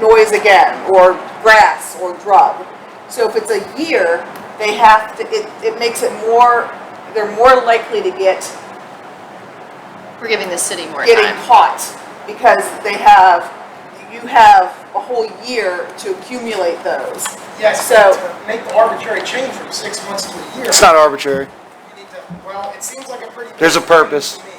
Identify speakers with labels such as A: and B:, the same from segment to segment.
A: weeds again, or grass, or drug. So if it's a year, they have to, it, it makes it more, they're more likely to get,
B: We're giving the city more
A: getting
B: time.
A: caught, because they have, you have a whole year to accumulate those.
C: Yes,
A: So-
C: but to make the arbitrary change from six months to a year.
D: It's not arbitrary.
C: you need to- Well, it seems like a pretty.
D: There's a
C: big change
D: purpose.
C: to me.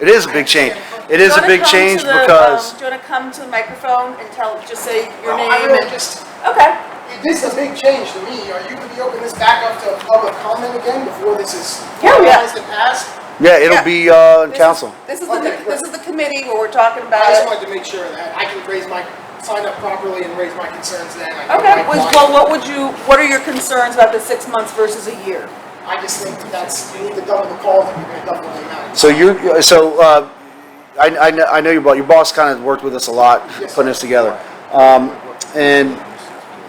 D: It is a big change. It is a big change because
A: um, Do you wanna come to the microphone and tell, just say your
C: Well,
A: name
C: I
A: and?
C: really just,
A: Okay.
C: if this is a big change to me, are you gonna be opening this back up to public comment again before this is
A: Yeah, yeah.
C: finalized and passed?
D: yeah, it'll be uh, in
A: This is-
D: council.
A: This is the,
C: Okay,
A: this is the committee where we're talking about
C: I
D: Uh,
C: just
A: it.
C: wanted to make sure that I can raise my, sign up properly and raise my concerns then. I can
A: Okay,
C: write
A: was-
C: mine.
A: well, what would you, what are your concerns about the six months versus a year?
C: I just think that's, you need to double the call, then you're gonna double the amount.
D: So you, so, uh, I, I know, I know your boss, your boss kind of worked with us a lot,
C: Yes,
D: putting
C: sir.
D: this together. Um, and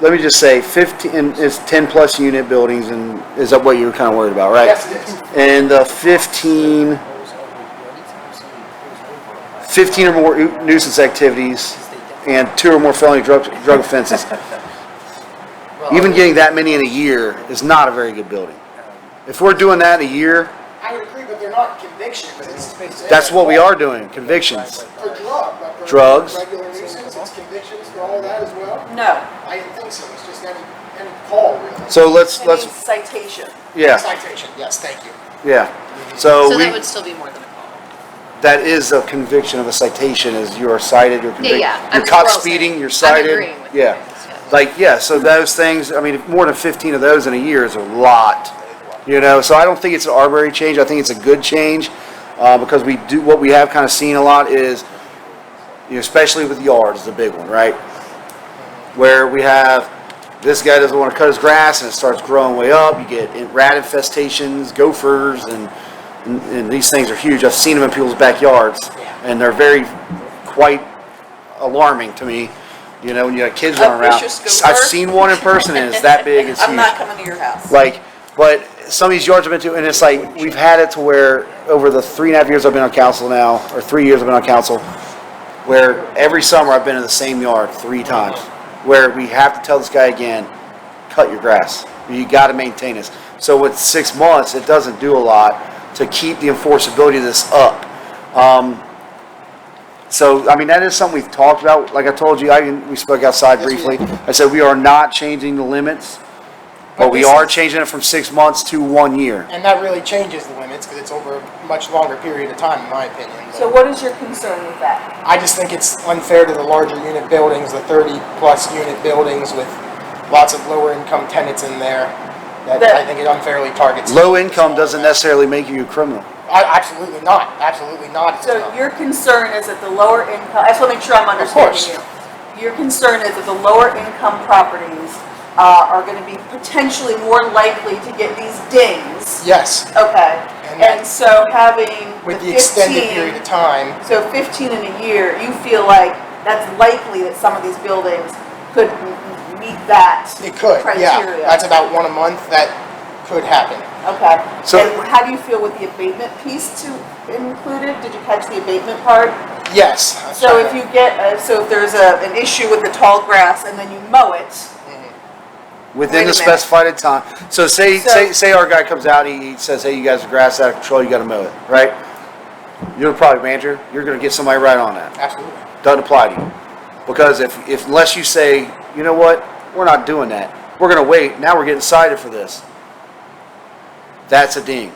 D: let me just say fifteen, and it's ten plus unit buildings and is that what you were kind of worried about, right?
C: Yes, it is.
D: And uh, fifteen, fifteen or more nu- nuisance activities and two or more felony drug, drug offenses. Even getting that many in a year is not a very good building. If we're doing that in a year,
C: I would agree, but they're not convictions. It's-
D: that's what we are doing, convictions.
C: For drug, but for
D: Drugs.
C: Regular nuisance, it's convictions for all that as well?
A: No,
C: I didn't think so, it's just any, any call really.
D: So let's,
A: it
D: let's,
A: means citation.
D: yeah,
C: Citation, yes, thank you.
D: yeah.
B: So
D: So
B: that
D: Oh, we,
B: would still be more than a call.
D: that is a conviction of a citation, is you are cited, you're
B: Yeah,
D: convicted.
B: yeah. I'm-
D: You're
B: we're all
D: caught
B: saying-
D: speeding, you're cited.
B: I'm agreeing with you.
D: Yeah.
B: guys,
D: Like, yeah, so those things, I mean, more than fifteen of those in a year is a lot, you know, so I don't think it's an arbitrary change, I think it's a good change, uh, because we do, what we have kind of seen a lot is, you know, especially with yards, the big one, right? Where we have, this guy doesn't want to cut his grass, and it starts growing way up, you get rat infestations, gophers, and, and- and these things are huge, I've seen them in people's backyards, and they're very, quite alarming to me, you know, when you got kids running around.
A: Vicious
D: I've
A: gopher.
D: seen one in person, and it's that big, it's huge.
A: I'm not coming to your house.
D: Like, but some of these yards I've been to, and it's like, we've had it to where, over the three and a half years I've been on council now, or three years I've been on council, where every summer I've been in the same yard three times, where we have to tell this guy again, cut your grass. You gotta maintain this. So with six months, it doesn't do a lot to keep the enforceability of this up. Um, so, I mean, that is something we've talked about. Like I told you, I, we spoke outside
C: Yes, we
D: briefly. I said, we are not changing the limits. But we
C: this
D: are
C: is-
D: changing it from six months to one year.
C: And that really changes the limits, because it's over a much longer period of time, in my opinion.
A: So what is your concern with that?
C: I just think it's unfair to the larger unit buildings, the thirty-plus unit buildings with lots of lower-income tenants in there, that I think it unfairly targets.
D: Low income doesn't necessarily make you a criminal.
C: I- Absolutely not, absolutely not. it's
A: So
C: not.
A: your concern is that the lower income, I just want to make sure I'm understanding
C: course.
A: you. Your concern is that the lower income properties, uh, are gonna be potentially more likely to get these dings.
C: Yes,
A: Okay,
C: And that-
A: and so having
C: with the
A: the
C: extended period
A: fifteen,
C: of time,
A: so fifteen in a year, you feel like that's likely that some of these buildings could m- m- meet that
C: it could, yeah.
A: criteria?
C: That's about one a month, that could happen.
A: Okay,
D: So-
A: and how do you feel with the abatement piece to included? Did you catch the abatement part?
C: Yes. I'm
A: So
C: sorry.
A: if you get, uh, so if there's a, an issue with the tall grass and then you mow it,
C: Mm-hmm.
A: Wait
D: Within
A: a
D: the
A: minute.
D: specified time. So say,
A: So-
D: say, say our guy comes out, he he says, hey, you guys are grass out of control, you gotta mow it, right? You're the property manager, you're gonna get somebody right on that.
C: Absolutely.
D: Doesn't apply to you. Because if, if, unless you say, you know what, we're not doing that, we're gonna wait, now we're getting cited for this. That's a ding,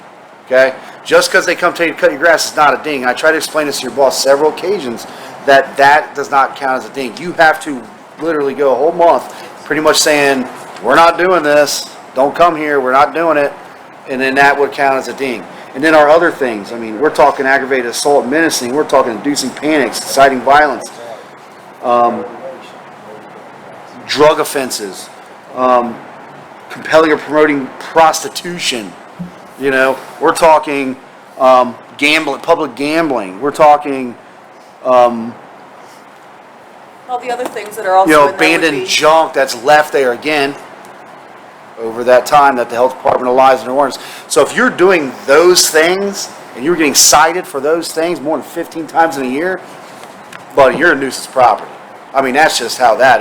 D: okay? Just because they come tell you to cut your grass is not a ding. I tried to explain this to your boss several occasions, that that does not count as a ding. You have to literally go a whole month, pretty much saying, we're not doing this, don't come here, we're not doing it, and then that would count as a ding. And then our other things, I mean, we're talking aggravated assault menacing, we're talking inducing panics, inciting violence, um, drug offenses, um, compelling or promoting prostitution. You know, we're talking um, gambling, public gambling. We're talking,
A: all the other things that are also
D: you
A: in there
D: know,
A: would be.
D: abandoned junk that's left there again over that time that the health department allows in ordinance. So if you're doing those things and you're getting cited for those things more than 15 times in a year, buddy, you're a nuisance property. I mean, that's just how that